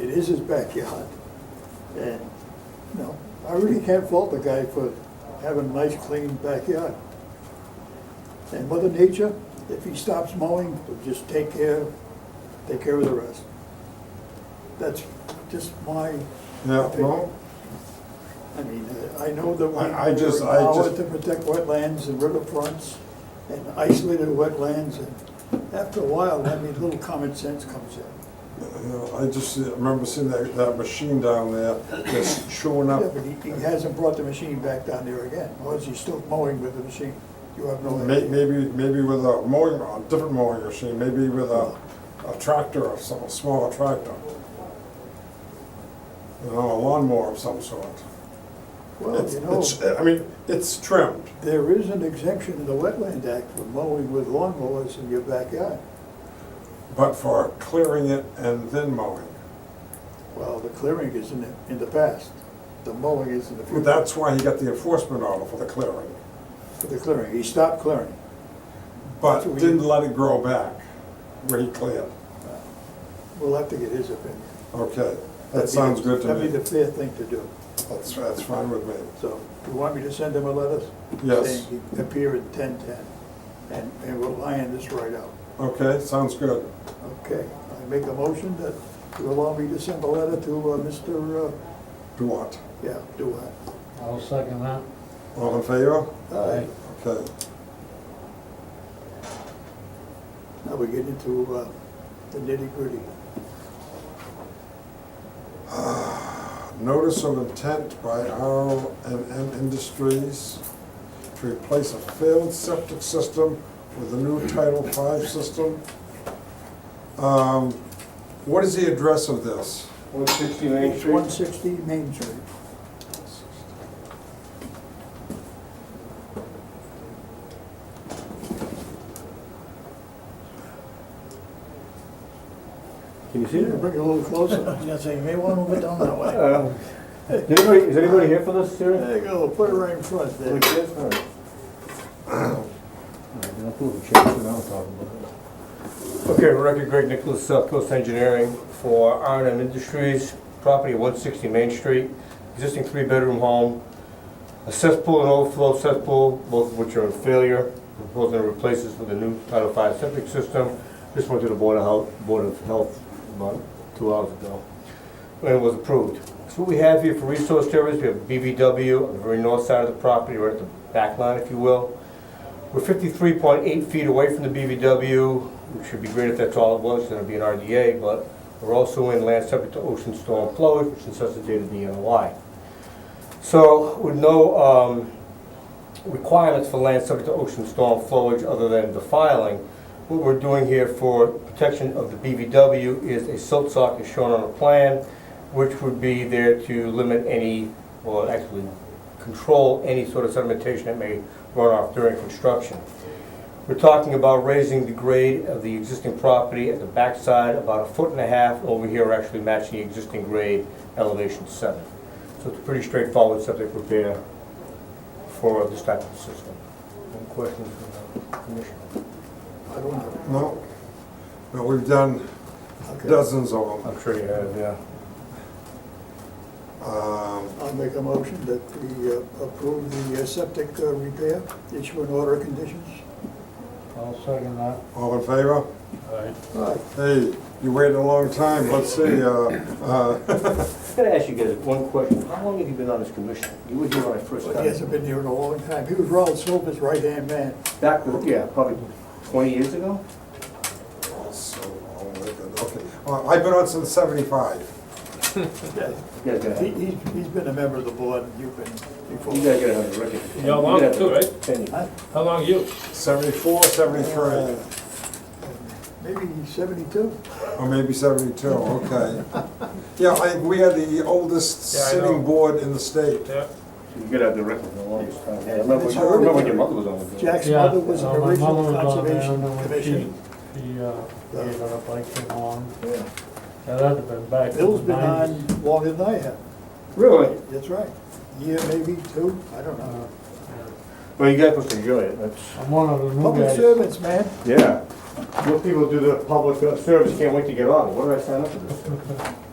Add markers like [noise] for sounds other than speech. is his backyard. And, you know, I really can't fault the guy for having a nice, clean backyard. And Mother Nature, if he stops mowing, will just take care, take care of the rest. That's just my. Yeah, opinion. well, I mean, uh, I know that we I- I just- are I empowered just- to protect wetlands and riverfronts and isolated wetlands, and after a while, I mean, little common sense comes in. you know, uh, I just see- I remember seeing that, that machine down there just chewing up, Yeah, but he, he hasn't brought the machine back down there again, or is he still mowing with the machine? You have no may- idea. maybe, maybe with a mowing, a different mowing machine, maybe with a, a tractor or some, a smaller tractor. You know, a lawnmower of some sort. Well, It's- you know, it's- uh, I mean, it's trimmed. there is an exemption in the Wetland Act for mowing with lawnmowers in your backyard. But for clearing it and then mowing. Well, the clearing is in the, in the past, the mowing is in the future. That's why he got the enforcement order for the clearing, For the clearing, he stopped clearing. but didn't let it grow back where he cleared. We'll have to get his opinion. Okay, That'd that be sounds the- good to That'd be me. the fair thing to do. That's, that's fine with me. So you want me to send him a letter? Yes. Saying he appear at ten-ten, and, and we'll iron this right out. Okay, sounds good. Okay, I make a motion that you allow me to send a letter to uh, Mr., uh, Do what? yeah, do I? I'll second that. All in favor? Aye. Okay. Now we get into uh, the nitty-gritty. Notice of intent by R and M Industries to replace a failed septic system with a new Title V system. Um, What is the address of this? One sixty Main Street? One sixty Main Street. Can you see You need to bring it a little closer. Yeah, so [laughs] you may want to move it down that way. Uh, Is anybody, is anybody here for this hearing? There you go, put it right in front All there. right, then I'll prove it, change it, I'll talk about it. Okay, record Greg Nicholas, South Coast Engineering for R and M Industries, property at one sixty Main Street, existing three-bedroom home. A cesspool and overflow cesspool, both of which are in failure, proposing to replace this with a new Title V septic system. This went to the Board of Health, Board of Health about two hours ago. and it was approved. So what we have here for resource areas, we have BBW on the very north side of the property, right at the back line, if you will. We're fifty-three point eight feet away from the BBW, which should be great if that's all it was, then it'd be an RDA, but we're also in land subject to ocean storm flowage, which necessitated the NOI. So with no um, requirements for land subject to ocean storm flowage other than defiling, what we're doing here for protection of the BVW is a silt sock is shown on the plan, which would be there to limit any, or actually control any sort of sedimentation that may run off during construction. We're talking about raising the grade of the existing property at the backside about a foot and a half. Over here, we're actually matching the existing grade, elevation seven. So it's a pretty straightforward septic repair for this type of system. Any questions from the commission? I don't know. No? No, we've done Okay, dozens of them. I'm sure you have, yeah. Um, I'll make a motion that we uh, approve the uh, septic uh, repair, issue an order of conditions. I'll second that. All in favor? Aye. Aye. Hey, you waited a long time, let's see, uh, uh, I gotta ask you guys one question. How long have you been on this commission? You were here when I first He hasn't been here in a long time. He was Ronald Silver's right-hand [laughs] man. Back, yeah, probably twenty years ago? so, oh my God, okay. Uh, I've been on since seventy-five. You guys gotta, He, you he's, he's been a member of the board, and you've been before. guys gotta have a record. You're long too, right? right? How long you? 74, 73, Maybe seventy-two? or maybe 72, [laughs] okay. Yeah, I, we are the oldest Yeah, I sitting know. board in the state. Yeah. You gotta have the record for the longest time. Yeah, I remember, It's I remember when hard. your mother was on the board. Jack's Yeah, mother was an uh, my mother original was on there, conservation and then when she, commission. she, uh, gave it up, I came on. Yeah. Yeah, that'd have been back in the Bill's been nineties. on longer than I have. Really? That's right. Year maybe two, I don't Uh, know. Well, you guys must enjoy it, that's. I'm one of the new Public guys. servants, man. Yeah. Most people do the public uh, service, can't wait to get on. What did I sign up for this?